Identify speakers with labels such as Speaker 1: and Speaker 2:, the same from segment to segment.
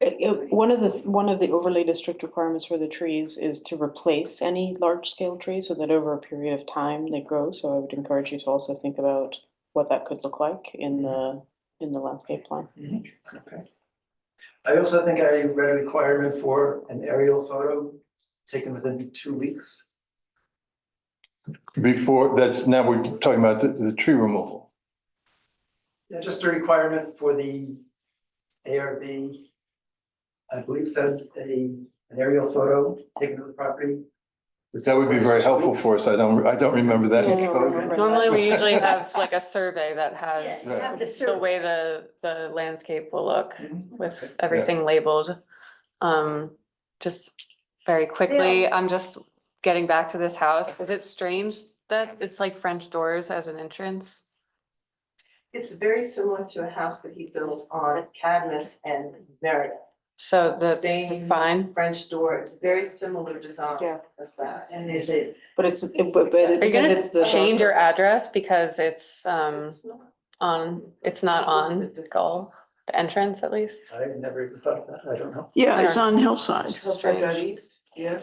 Speaker 1: it- one of the, one of the overlay district requirements for the trees is to replace any large scale tree so that over a period of time they grow. So I would encourage you to also think about what that could look like in the, in the landscape plan.
Speaker 2: Mm-hmm. Okay. I also think I read a requirement for an aerial photo taken within two weeks.
Speaker 3: Before, that's, now we're talking about the, the tree removal.
Speaker 2: Yeah, just a requirement for the ARB. I believe said a, an aerial photo taken of the property.
Speaker 3: That would be very helpful for us. I don't, I don't remember that.
Speaker 1: Yeah, I don't remember.
Speaker 4: Normally, we usually have like a survey that has
Speaker 5: Yes, have the
Speaker 4: the
Speaker 5: survey.
Speaker 4: way the, the landscape will look
Speaker 2: Mhm.
Speaker 4: with everything labeled. Um, just very quickly, I'm just getting back to this house. Is it strange that it's like French doors as an entrance?
Speaker 6: It's very similar to a house that he built on Cadmus and Meredith.
Speaker 4: So that's
Speaker 6: Same.
Speaker 4: fine.
Speaker 6: French door, it's very similar design
Speaker 1: Yeah.
Speaker 6: as that.
Speaker 5: And is it,
Speaker 1: But it's, it- but, but
Speaker 4: Are you
Speaker 1: because it's the.
Speaker 4: gonna change your address because it's, um,
Speaker 6: It's not-
Speaker 4: on, it's not on goal, the entrance at least?
Speaker 2: I've never even thought of that, I don't know.
Speaker 7: Yeah, it's
Speaker 4: Yeah.
Speaker 7: on hillside.
Speaker 6: Hillside Drive East, yeah,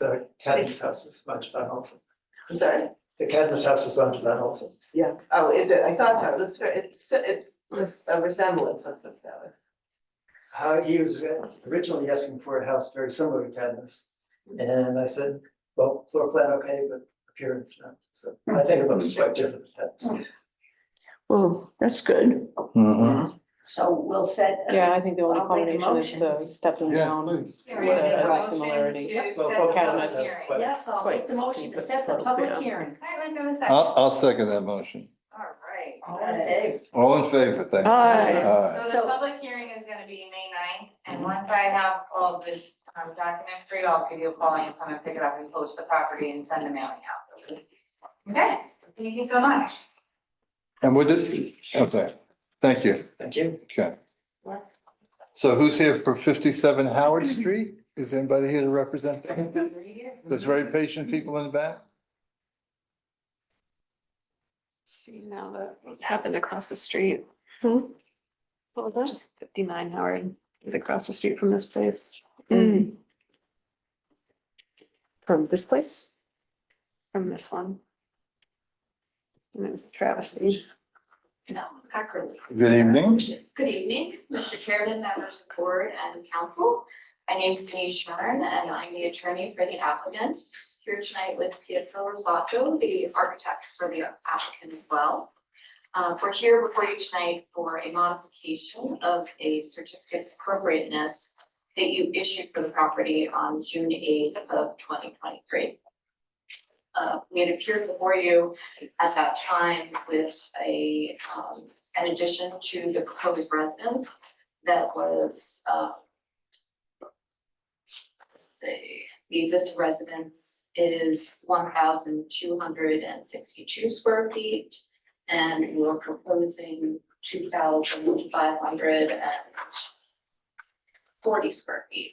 Speaker 2: The Cadmus House is on design also.
Speaker 6: I'm sorry,
Speaker 2: The Cadmus House is on design also.
Speaker 6: yeah, oh, is it, I thought so, it looks very, it's, it's, it's a resemblance, let's put it that way.
Speaker 2: how Uh, he was originally asking for a house very similar to Cadmus. And I said, well, floor plan, okay, but appearance not. So I think it looks quite different than Cadmus.
Speaker 7: Well, that's good.
Speaker 3: Mhm.
Speaker 5: so we'll set. uh, a-
Speaker 1: Yeah, I think the only
Speaker 5: I'll make a
Speaker 1: combination is the
Speaker 5: motion.
Speaker 1: stepping down.
Speaker 8: Yeah,
Speaker 1: So
Speaker 8: we're gonna
Speaker 1: it has
Speaker 8: motion
Speaker 1: similarity.
Speaker 8: to
Speaker 5: Yep.
Speaker 2: Well,
Speaker 8: set
Speaker 2: floor
Speaker 8: the
Speaker 2: plan
Speaker 1: Cadmus.
Speaker 2: is
Speaker 8: hearing. All
Speaker 2: quite-
Speaker 5: Yes, I'll make the motion to set the
Speaker 7: Yeah.
Speaker 5: public hearing.
Speaker 8: right, who's gonna second?
Speaker 3: I'll,
Speaker 8: All
Speaker 3: I'll second that motion.
Speaker 8: right.
Speaker 5: Oh, Okay.
Speaker 3: All in favor, thank you.
Speaker 7: Aye.
Speaker 3: Aye.
Speaker 8: So the
Speaker 5: So-
Speaker 8: public hearing is gonna be May ninth, and once I have all of the um documents for you, I'll give you a call and you come and pick it up and post the property and send the mailing out. Okay, thank you so much.
Speaker 3: And we're just, okay, thank you.
Speaker 2: Thank you.
Speaker 3: Okay. So who's here for fifty-seven Howard Street? Is anybody here to represent them? There's very patient people in the back?
Speaker 4: See now that what's happened across the street.
Speaker 7: Hmm?
Speaker 4: What was that? Fifty-nine Howard is across the street from this place.
Speaker 7: Mm.
Speaker 4: From this place? From this one. And it was a travesty.
Speaker 9: No, Hackerly.
Speaker 3: Good evening.
Speaker 9: Good evening, Mr. Chairman, members of the board and council. My name is Denise Sharn and I'm the attorney for the applicant. Here tonight with Pietro Rosato, the architect for the applicant as well. Uh, we're here before you tonight for a modification of a certificate of appropriateness that you issued for the property on June eighth of twenty twenty-three. Uh, we had appeared before you at that time with a, um, an addition to the proposed residence that was, uh, let's see, the existing residence is one thousand two hundred and sixty-two square feet, and we're proposing two thousand five hundred and forty square feet.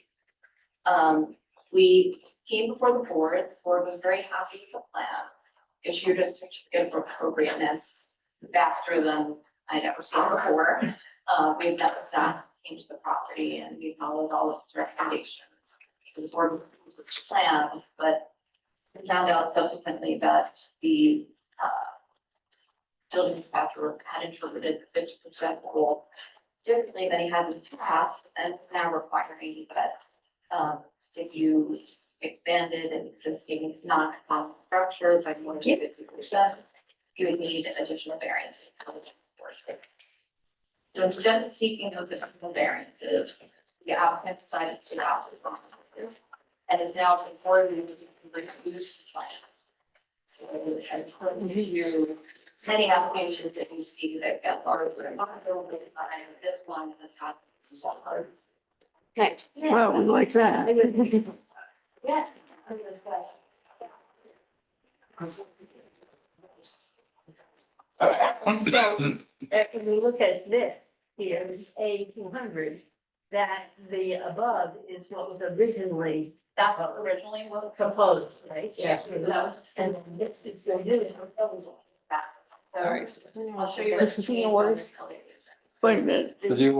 Speaker 9: Um, we came before the board, the board was very happy with the plans, issued a certificate of appropriateness faster than I'd ever seen before. Uh, we had met with staff, came to the property and we followed all of his recommendations. So the board approved the plans, but we found out subsequently that the, uh, building inspector had interpreted the fifty percent rule differently than he had in the past and now requiring that, um, if you expanded an existing non-conforming structure by more than fifty percent, you would need additional variance. So instead of seeking those additional variances, the applicant decided to opt for and is now before you with a reduced plan. So as opposed to many applications that you see that got larger and larger, with, uh, this one has had some smaller.
Speaker 4: Nice.
Speaker 7: Well, we like that.
Speaker 9: Yeah.
Speaker 5: So, if Uh, we look at this, here's A two hundred, that the above is what was originally
Speaker 9: That's what originally was.
Speaker 5: proposed, right?
Speaker 9: That was.
Speaker 5: And then this is going to do the proposal.
Speaker 9: Back. So
Speaker 4: Sorry.
Speaker 9: I'll show you.
Speaker 7: This is
Speaker 9: what's changed on
Speaker 7: yours.
Speaker 9: this elevation.
Speaker 7: Wait a minute.
Speaker 3: Did you